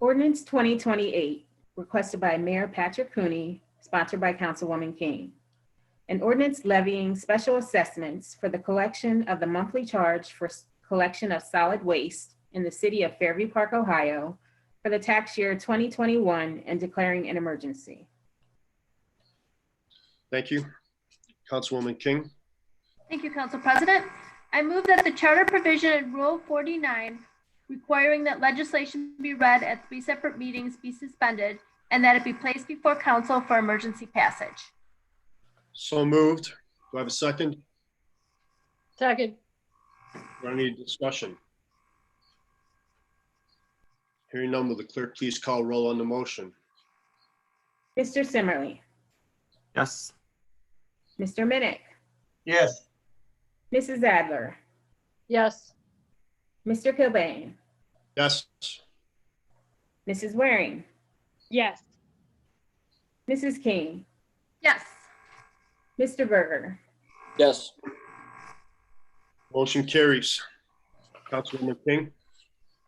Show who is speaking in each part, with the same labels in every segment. Speaker 1: Ordinance 2028, requested by Mayor Patrick Cooney, sponsored by Councilwoman King. An ordinance levying special assessments for the collection of the monthly charge for s- collection of solid waste in the city of Fairview Park, Ohio, for the tax year 2021 and declaring an emergency.
Speaker 2: Thank you. Councilwoman King,
Speaker 3: Thank you, Council President. I move that the charter provision in Rule 49 requiring that legislation be read at three separate meetings be suspended and that it be placed before council for emergency passage.
Speaker 2: so moved. Do I have a second?
Speaker 4: Second,
Speaker 2: Do I need discussion? Hearing none, will the clerk please call roll on the motion?
Speaker 1: Mr. Simmerly,
Speaker 5: yes,
Speaker 1: Mr. Minnick,
Speaker 6: yes,
Speaker 1: Mrs. Adler,
Speaker 4: yes,
Speaker 1: Mr. Kilbane,
Speaker 2: Yes,
Speaker 1: Mrs. Waring,
Speaker 7: yes,
Speaker 1: Mrs. King,
Speaker 3: Yes.
Speaker 1: Mr. Berger,
Speaker 8: yes,
Speaker 2: motion carries. Councilwoman King,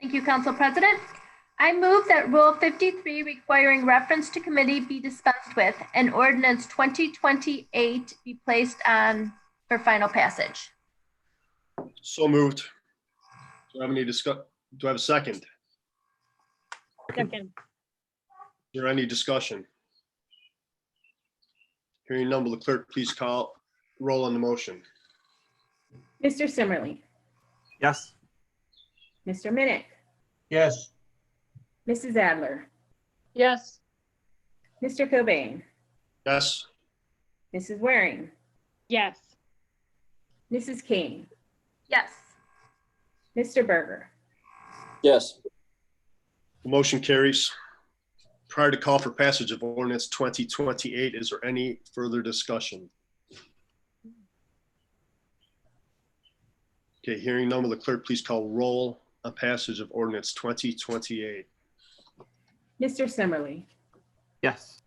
Speaker 3: Thank you, Council President. I move that Rule 53 requiring reference to committee be dispensed with and ordinance 2028 be placed on for final passage.
Speaker 2: so moved. Do I have any discuss, do I have a second?
Speaker 7: second,
Speaker 2: Is there any discussion? Hearing none, will the clerk please call roll on the motion?
Speaker 1: Mr. Simmerly,
Speaker 5: yes,
Speaker 1: Mr. Minnick,
Speaker 6: yes,
Speaker 1: Mrs. Adler,
Speaker 4: yes,
Speaker 1: Mr. Cobain,
Speaker 2: Yes,
Speaker 1: Mrs. Waring,
Speaker 7: yes,
Speaker 1: Mrs. King,
Speaker 3: Yes.
Speaker 1: Mr. Berger,
Speaker 8: yes,
Speaker 2: the motion carries. Prior to call for passage of ordinance 2028, is there any further discussion? Okay, hearing none, will the clerk please call roll on passage of ordinance 2028?
Speaker 1: Mr. Simmerly,
Speaker 5: yes,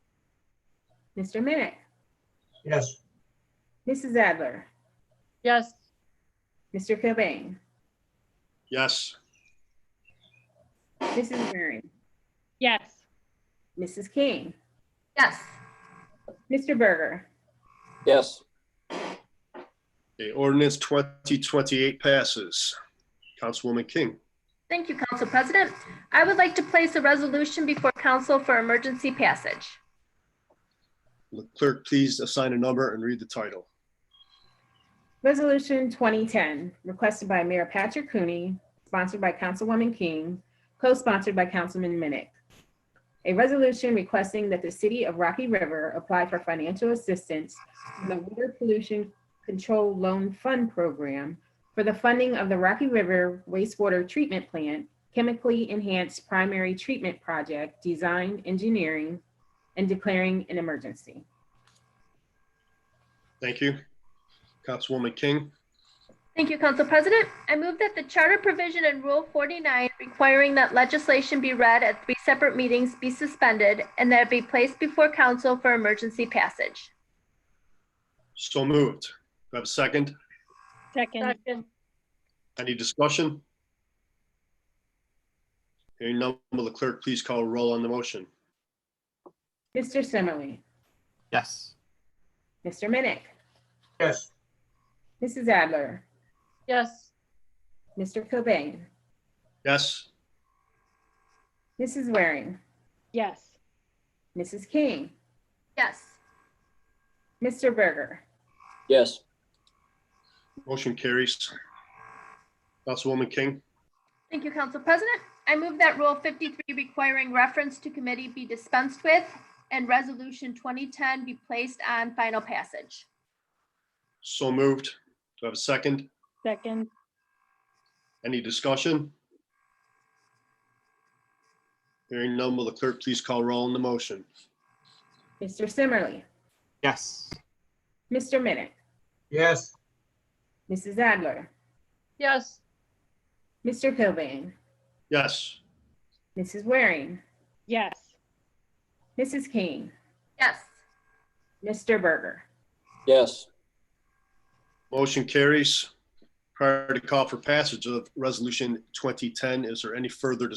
Speaker 1: Mr. Minnick,
Speaker 6: yes,
Speaker 1: Mrs. Adler,
Speaker 4: yes,
Speaker 1: Mr. Cobain,
Speaker 2: Yes,
Speaker 1: Mrs. Waring,
Speaker 7: yes,
Speaker 1: Mrs. King,
Speaker 3: Yes.
Speaker 1: Mr. Berger,
Speaker 8: yes,
Speaker 2: okay, ordinance 2028 passes. Councilwoman King,
Speaker 3: Thank you, Council President. I would like to place a resolution before council for emergency passage.
Speaker 2: will the clerk please assign a number and read the title?
Speaker 1: Resolution 2010, requested by Mayor Patrick Cooney, sponsored by Councilwoman King, co-sponsored by Councilman Minnick. A resolution requesting that the city of Rocky River apply for financial assistance from the Water Pollution Control Loan Fund Program for the funding of the Rocky River wastewater treatment plant chemically enhanced primary treatment project design, engineering, and declaring an emergency.
Speaker 2: Thank you. Councilwoman King,
Speaker 3: Thank you, Council President. I move that the charter provision in Rule 49 requiring that legislation be read at three separate meetings be suspended and that it be placed before council for emergency passage.
Speaker 2: so moved. Do I have a second?
Speaker 7: second,
Speaker 4: second,
Speaker 2: Any discussion? Hearing none, will the clerk please call roll on the motion?
Speaker 1: Mr. Simmerly,
Speaker 5: yes,
Speaker 1: Mr. Minnick,
Speaker 6: yes,
Speaker 1: Mrs. Adler,
Speaker 4: yes,
Speaker 1: Mr. Cobain,
Speaker 2: Yes,
Speaker 1: Mrs. Waring,
Speaker 7: yes,
Speaker 1: Mrs. King,
Speaker 3: Yes.
Speaker 1: Mr. Berger,
Speaker 8: yes,
Speaker 2: motion carries. Councilwoman King,
Speaker 3: Thank you, Council President. I move that Rule 53 requiring reference to committee be dispensed with and Resolution 2010 be placed on final passage.
Speaker 2: so moved. Do I have a second?
Speaker 7: second,
Speaker 2: Any discussion? Hearing none, will the clerk please call roll on the motion?
Speaker 1: Mr. Simmerly,
Speaker 5: yes,
Speaker 1: Mr. Minnick,
Speaker 6: yes,
Speaker 1: Mrs. Adler,
Speaker 4: yes,
Speaker 1: Mr. Cobain,
Speaker 2: Yes,
Speaker 1: Mrs. Waring,
Speaker 7: yes,
Speaker 1: Mrs. King,
Speaker 3: Yes.
Speaker 1: Mr. Berger,
Speaker 8: yes,
Speaker 2: motion carries. Prior to call for passage of Resolution 2010, is there any further